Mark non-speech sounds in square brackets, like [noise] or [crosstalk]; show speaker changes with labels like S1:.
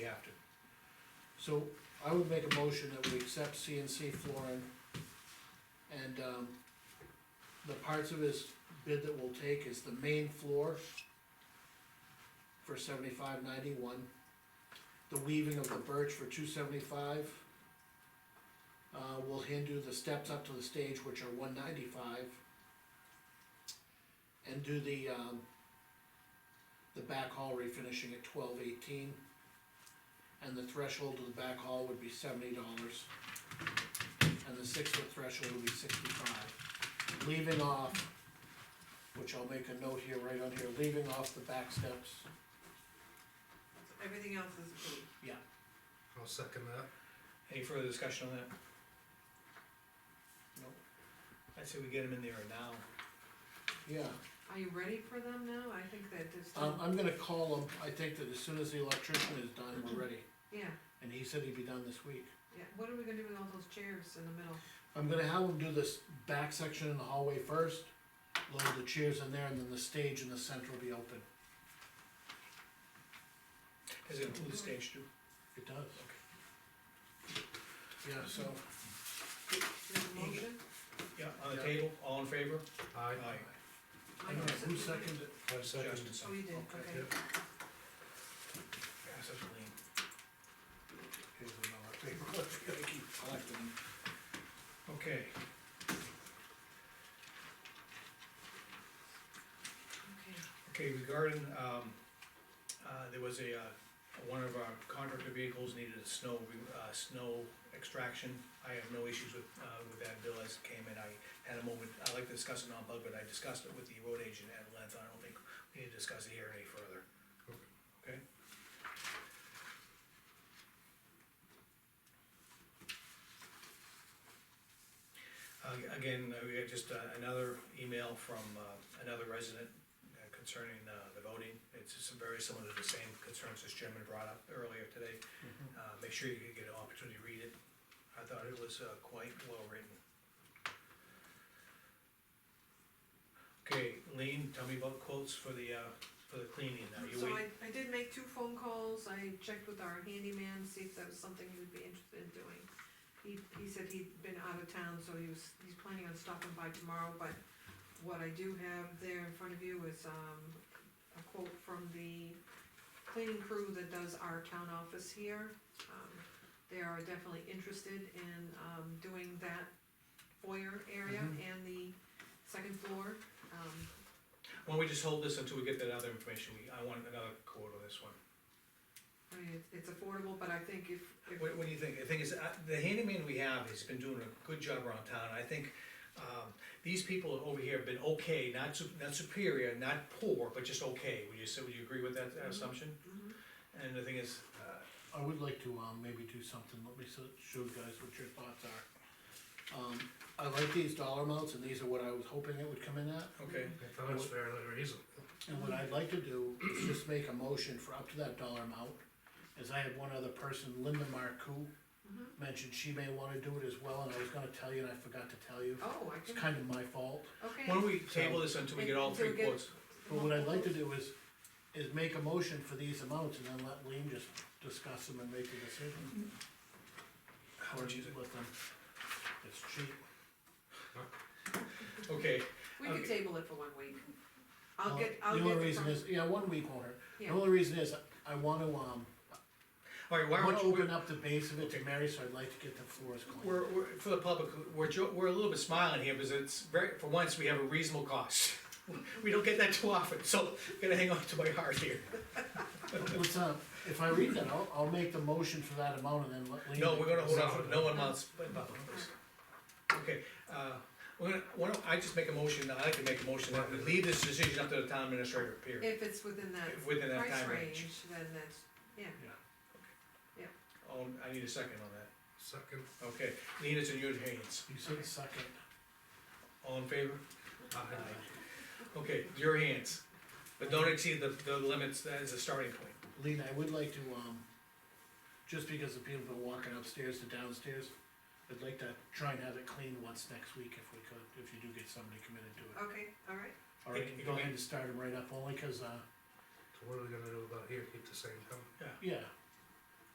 S1: So I would make a motion that we accept CNC flooring and, um, the parts of his bid that we'll take is the main floor for seventy-five ninety-one, the weaving of the birch for two seventy-five. Uh, we'll hand do the steps up to the stage, which are one ninety-five. And do the, um, the back hall refinishing at twelve eighteen. And the threshold of the back hall would be seventy dollars. And the six foot threshold would be sixty-five. Leaving off, which I'll make a note here, right on here, leaving off the back steps.
S2: Everything else is approved.
S3: I'll second that.
S4: Any further discussion on that?
S1: No.
S4: I'd say we get them in there now.
S1: Yeah,
S2: Are you ready for them now? I think that it's,
S1: um, I'm gonna call him, I think that as soon as the electrician is done, we're ready,
S2: yeah,
S1: and he said he'd be done this week.
S2: yeah, what are we gonna do with all those chairs in the middle?
S1: I'm gonna have him do this back section in the hallway first, load the chairs in there, and then the stage in the center will be open.
S4: Does it include the stage too?
S1: It does. Yeah, so,
S2: Do you have a motion?
S4: Yeah, on the
S1: Yeah.
S4: table, all in favor?
S3: Aye.
S1: I don't know, who seconded it?
S3: I second.
S4: Justin, so.
S2: Oh, you did,
S4: Okay.
S2: okay.
S4: Yeah, such a lean.
S1: Here's another [laughs] paper.
S4: Gotta keep collecting them. Okay,
S2: Okay,
S4: okay, regarding, um, uh, there was a, uh, one of our contractor vehicles needed a snow, re- uh, snow extraction. I have no issues with, uh, with that bill as it came in, I had a moment, I'd like to discuss it on bug, but I discussed it with the road agent at length, I don't think we need to discuss it here any further. Okay? Uh, again, uh, we got just uh, another email from, uh, another resident uh, concerning, uh, the voting. It's just very similar to the same concerns this gentleman brought up earlier today. Uh, make sure you get an opportunity to read it. I thought it was, uh, quite well written. Okay, Lean, tell me about quotes for the, uh, for the cleaning now. You
S2: so
S4: wait.
S2: I, I did make two phone calls, I checked with our handyman, see if that was something he would be interested in doing. He, he said he'd been out of town, so he was, he's planning on stopping by tomorrow, but what I do have there in front of you is, um, a quote from the cleaning crew that does our town office here. Um, They are definitely interested in, um, doing that foyer area
S4: Mm-hmm.
S2: and the second floor, um,
S4: Why don't we just hold this until we get that other information, we, I want another quote on this one.
S2: I mean, it's- it's affordable, but I think if, if,
S4: What, what do you think? The thing is, uh, the handyman we have has been doing a good job around town, I think, um, these people over here have been okay, not su- not superior, not poor, but just okay, would you say, would you agree with that assumption?
S2: Mhm.
S4: And the thing is, uh,
S1: I would like to, um, maybe do something, let me so- show you guys what your thoughts are. Um, I like these dollar amounts, and these are what I was hoping it would come in at,
S4: okay,
S3: I thought it was fairly reasonable.
S1: and what I'd like to do is just make a motion for up to that dollar amount. As I had one other person, Linda Marcoux,
S2: Mhm.
S1: mentioned she may wanna do it as well, and I was gonna tell you, and I forgot to tell you.
S2: oh, I
S1: It's
S2: can,
S1: kind of my fault,
S2: okay.
S4: why don't we table this until we get all
S2: Mm-hmm. Until we
S4: three
S2: get-
S4: quotes?
S1: but what I'd like to do is, is make a motion for these amounts, and then let Lean just discuss them and make a
S2: Mm-hmm.
S1: decision.
S4: How
S1: Or
S4: would you-
S1: let them, it's cheap.
S4: Okay,
S2: We could
S4: okay.
S2: table it for one week. I'll
S1: Well,
S2: get, I'll get.
S1: Uh, The
S2: the
S1: only reason
S2: pro-
S1: is, yeah, one week won't hurt. The
S2: Yeah.
S1: only reason is, I wanna, um,
S4: alright, why
S1: I wanna
S4: don't you,
S1: open up the base of it to Mary, so I'd like to get the floors clean.
S4: we're, we're, for the public, we're, jo- we're a little bit smiling here, because it's very, for once, we have a reasonable cost. [laughs] We don't get that too often, so I'm gonna hang on to my heart here.
S1: Let's, uh, if I read that, I'll, I'll make the motion for that amount and then let Lean.
S4: No,
S1: make
S4: we're
S1: the
S4: gonna hold
S1: decision.
S4: off, no one wants, but, but, okay, uh, we're gonna, why don't, I just make a motion, I like to make a motion that we leave this decision up to the town administrator, period.
S2: If it's within that
S4: Within that
S2: price
S4: time range.
S2: range, then that's, yeah,
S4: Oh, I need a second on that,
S3: Second.
S4: okay, Lean, it's in your hands,
S1: You said second,
S4: all in favor?
S3: Aye.
S4: Okay, your hands, but don't exceed the, the limits, that is a starting point.
S1: Lean, I would like to, um, just because the people have been walking upstairs to downstairs, I'd like to try and have it cleaned once next week if we could, if you do get somebody committed to it.
S2: okay, all right.
S1: Alright,
S4: It- it
S1: go
S4: can be-
S1: ahead and start them right up, only cause, uh,
S3: So what are we gonna do about here, keep the same company?
S1: yeah,